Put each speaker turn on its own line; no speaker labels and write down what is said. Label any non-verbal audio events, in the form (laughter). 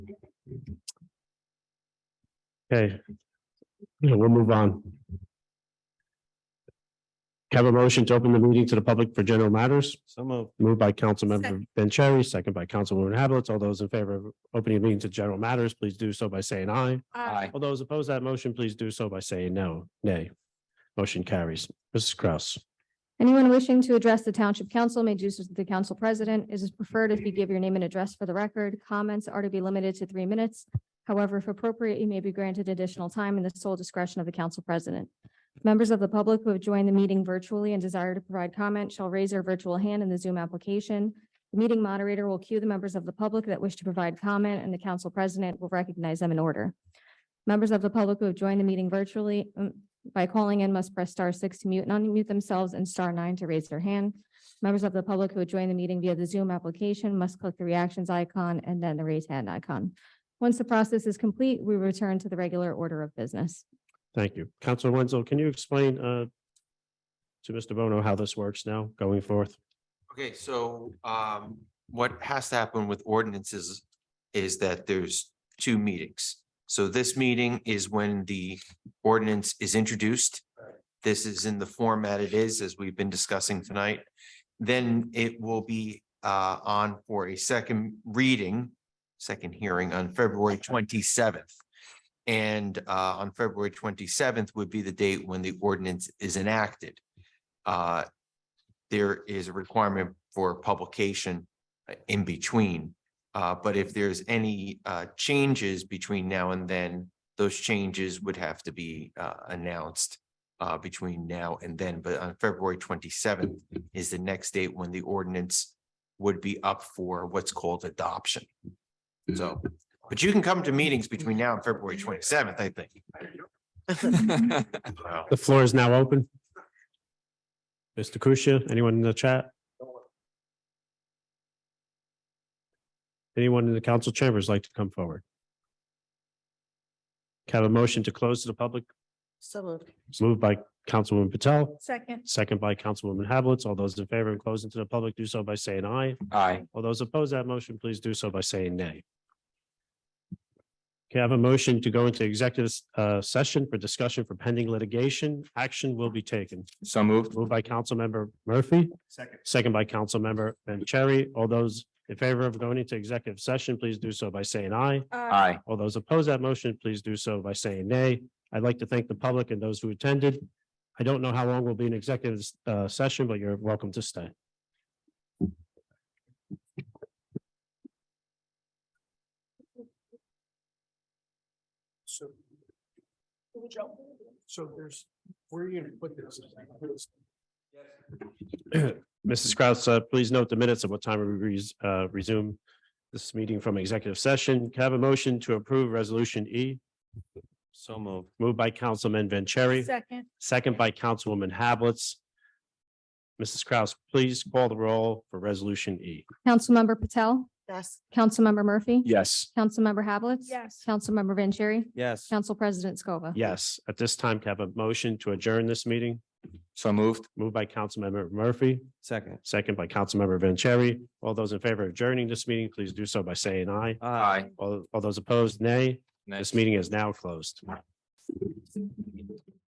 Okay. Yeah, We'll move on. Can I Have a motion to open the meeting to the public for general matters.
So moved.
Moved by Councilmember Vanchery, second by Councilwoman Havelitz. All those in favor of opening the meeting to general matters, please do so by saying aye. All those opposed to that motion, please do so by saying no, nay. Motion carries. Mrs. Kraus.
Anyone wishing to address the Township Council may do so to the Council President. It is preferred if you give your name and address for the record. Comments are to be limited to three minutes. However, if appropriate, you may be granted additional time in the sole discretion of the Council President. Members of the public who have joined the meeting virtually and desire to provide comment shall raise their virtual hand in the Zoom application. The meeting moderator will cue the members of the public that wish to provide comment, and the Council President will recognize them in order. Members of the public who have joined the meeting virtually, mm, by calling in must press star six to mute and unmute themselves and star nine to raise their hand. Members of the public who have joined the meeting via the Zoom application must click the reactions icon and then the raise hand icon. Once the process is complete, we return to the regular order of business.
Thank you. Counselor Wenzel, can you explain uh to Mr. Bono how this works now going forth?
Okay, so um, what has to happen with ordinances is that there's two meetings. So this meeting is when the ordinance is introduced. This is in the format it is, as we've been discussing tonight. Then it will be uh, on for a second reading, second hearing on February twenty-seventh. And uh, on February twenty-seventh would be the date when the ordinance is enacted. Uh, there is a requirement for publication uh, in between. Uh, but if there's any uh changes between now and then, those changes would have to be uh announced uh between now and then, but on February twenty-seventh is the next date when the ordinance would be up for what's called adoption. So, but you can come to meetings between now and February twenty-seventh, I think. Wow.
The floor is now open. Mr. Kusia, anyone in the chat? Anyone in the council chambers like to come forward? Can I Have a motion to close to the public.
So moved.
It's moved by Councilwoman Patel,
Second.
second by Councilwoman Havelitz. All those in favor of closing to the public do so by saying aye.
Aye.
All those opposed to that motion, please do so by saying nay. Can I have a motion to go into executive uh, session for discussion for pending litigation? Action will be taken.
So moved.
Moved by Councilmember Murphy,
Second.
second by Councilmember Vanchery. All those in favor of going into executive session, please do so by saying aye.
Aye.
All those opposed to that motion, please do so by saying nay. I'd like to thank the public and those who attended. I don't know how long we'll be in executive uh, session, but you're welcome to stay.
So. So there's, where are you gonna put
(clears throat)
this?
Mrs. Kraus, uh, please note the minutes of what time we res- uh, resume this meeting from executive session. Can I have a motion to approve Resolution E?
So moved.
Moved by Councilman Vanchery,
Second.
second by Councilwoman Hablitz. Mrs. Kraus, please call the roll for Resolution E.
Councilmember Patel,
Yes.
Councilmember Murphy.
Yes.
Councilmember Havelitz.
Yes.
Councilmember Vanchery,
Yes.
Council President Scova.
Yes, at this time, can I have a motion to adjourn this meeting?
(laughs) So moved.
Moved by Councilmember Murphy,
Second.
second by Councilmember Vanchery. All those in favor of adjourning this meeting, please do so by saying aye.
Aye.
All all those opposed, nay. This meeting is now closed.